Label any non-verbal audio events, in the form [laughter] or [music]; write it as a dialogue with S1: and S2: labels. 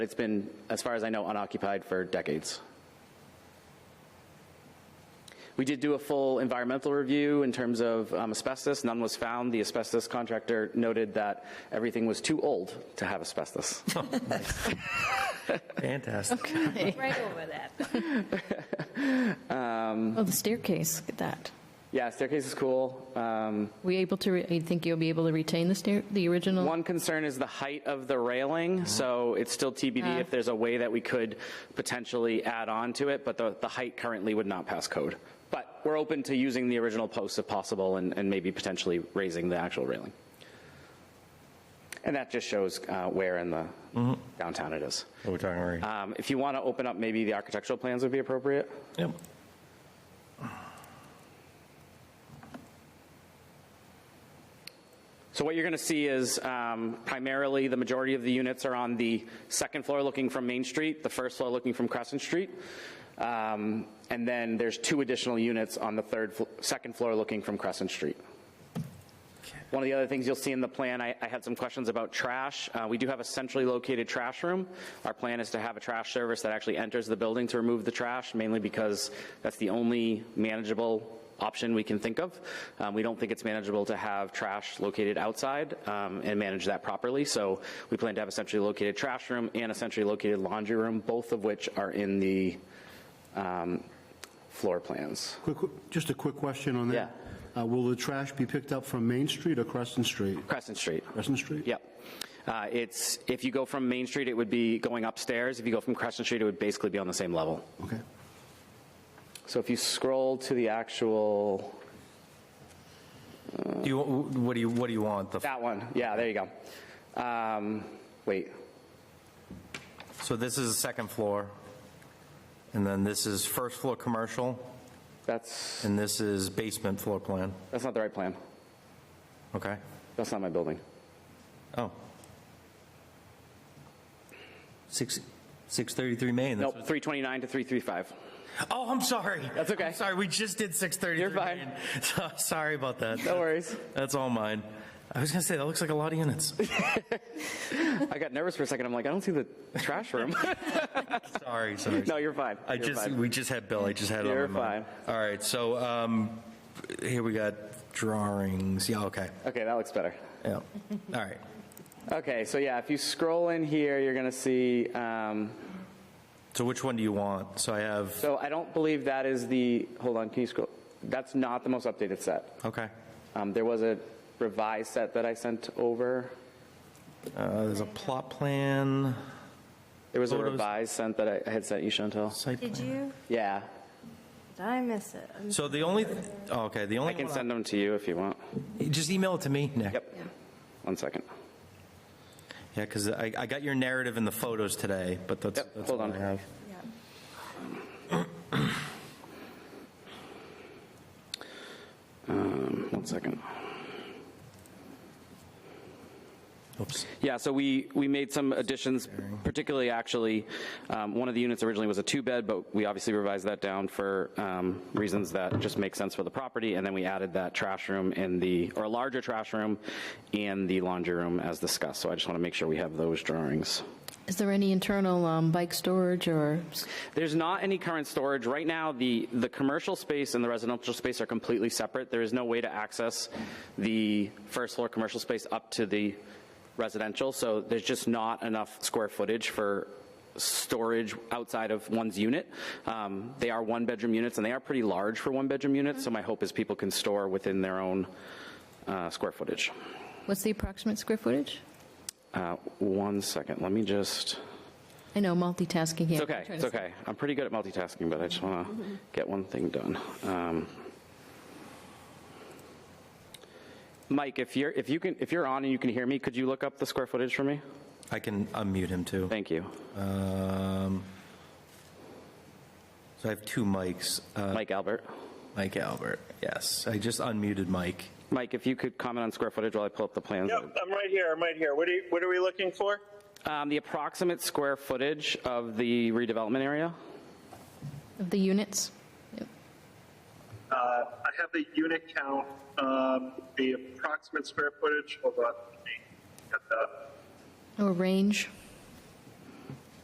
S1: It's been, as far as I know, unoccupied for decades. We did do a full environmental review in terms of um, asbestos. None was found. The asbestos contractor noted that everything was too old to have asbestos.
S2: Fantastic.
S3: Right over that.
S4: Oh, the staircase, look at that.
S1: yeah, staircase is cool. Um,
S4: We able to, re- you think you'll be able to retain the stair, the original?
S1: One concern is the height of the railing, so it's still TBD if there's a way that we could potentially add on to it, but the, the height currently would not pass code. But we're open to using the original posts if possible and, and maybe potentially raising the actual railing. And that just shows uh, where in the downtown it is.
S2: We're talking right.
S1: Um, If you want to open up, maybe the architectural plans would be appropriate.
S2: Yep.
S1: So what you're going to see is um, primarily the majority of the units are on the second floor looking from Main Street, the first floor looking from Crescent Street. Um, and then there's two additional units on the third, fl- second floor looking from Crescent Street. One of the other things you'll see in the plan, I, I had some questions about trash. Uh, we do have a centrally located trash room. Our plan is to have a trash service that actually enters the building to remove the trash, mainly because that's the only manageable option we can think of. Um, we don't think it's manageable to have trash located outside um, and manage that properly. So we plan to have a centrally located trash room and a centrally located laundry room, both of which are in the um, floor plans.
S5: Quick, just a quick question on that. Uh, Will the trash be picked up from Main Street or Crescent Street?
S1: Crescent Street.
S5: Crescent Street?
S1: Yep. Uh, It's, if you go from Main Street, it would be going upstairs. If you go from Crescent Street, it would basically be on the same level.
S5: Okay.
S1: So if you scroll to the actual,
S2: Do you, what do you, what do you want? The-
S1: that one, yeah, there you go. Um, Wait,
S2: So this is the second floor, and then this is first floor commercial,
S1: that's,
S2: and this is basement floor plan.
S1: that's not the right plan.
S2: Okay?
S1: That's not my building.
S2: Oh. Six, 633 Main. that's
S1: Nope,
S2: what-
S1: 329 to 335.
S2: Oh, I'm sorry.
S1: That's okay.
S2: I'm sorry, we just did 633
S1: You're fine.
S2: Main. So, sorry about that.
S1: No worries.
S2: That's all mine. I was going to say, that looks like a lot
S1: [laughs]
S2: of units.
S1: I got nervous for a second. I'm like, I don't see the trash
S2: [laughs]
S1: room.
S2: Sorry, sorry.
S1: No, you're fine.
S2: I
S1: You're
S2: just,
S1: fine.
S2: we just had Bill, I just had it on my
S1: You're
S2: mind. All right, so, um, here we got drawings, yeah, okay,
S1: Okay, that looks better.
S2: yeah, all right.
S1: Okay, so yeah, if you scroll in here, you're going to see, um,
S2: So which one do you want? So I have,
S1: so I don't believe that is the, hold on, can you scroll? That's not the most updated set.
S2: okay,
S1: Um, There was a revised set that I sent over.
S2: uh, there's a plot plan,
S1: There was a
S2: Photos.
S1: revised set that I- I had sent you, Chantel.
S2: site
S3: Did
S2: plan.
S3: you?
S1: Yeah,
S3: Did I miss it? Um, I'm-
S2: So the only, oh, okay, the
S1: I
S2: only
S1: can
S2: one,
S1: send them to you if you want.
S2: I- just email it to me, Nick.
S1: Yep. One second.
S2: Yeah, because I, I got your narrative and the photos today, but that's,
S1: Yep,
S2: that's
S1: hold
S2: all
S1: on.
S2: I have.
S3: yeah.
S1: Um, One second.
S2: Oops.
S1: Yeah, so we, we made some additions, particularly actually, um, one of the units originally was a two-bed, but we obviously revised that down for um, reasons that just make sense for the property, and then we added that trash room and the, or a larger trash room and the laundry room as discussed, so I just want to make sure we have those drawings.
S4: Is there any internal um, bike storage or,
S1: There's not any current storage. Right now, the, the commercial space and the residential space are completely separate. There is no way to access the first floor commercial space up to the residential, so there's just not enough square footage for storage outside of one's unit. Um, They are one-bedroom units, and they are pretty large for one-bedroom units, so my hope is people can store within their own uh, square footage.
S4: what's the approximate square footage?
S1: Uh, One second, let me just,
S4: I know, multitasking here.
S1: it's okay, it's okay. I'm pretty good at multitasking, but I just want to get one thing done. Um, Mike, if you're if you can if you're on and you can hear me, could you look up the square footage for me?
S2: I can unmute him too.
S1: Thank you.
S2: Um, so I have two mics. Uh,
S1: Mike Albert.
S2: Mike Albert, yes. I just unmuted Mike.
S1: Mike, if you could comment on square footage while I pull up the plans.
S6: Yep, I'm right here, I'm right here. What are, you- what are we looking for?
S1: Um, the approximate square footage of the redevelopment area.
S4: Of the units? Yep.
S6: Uh, I have the unit count, um, uh, the approximate square footage, hold on. let me get that.
S4: Or range?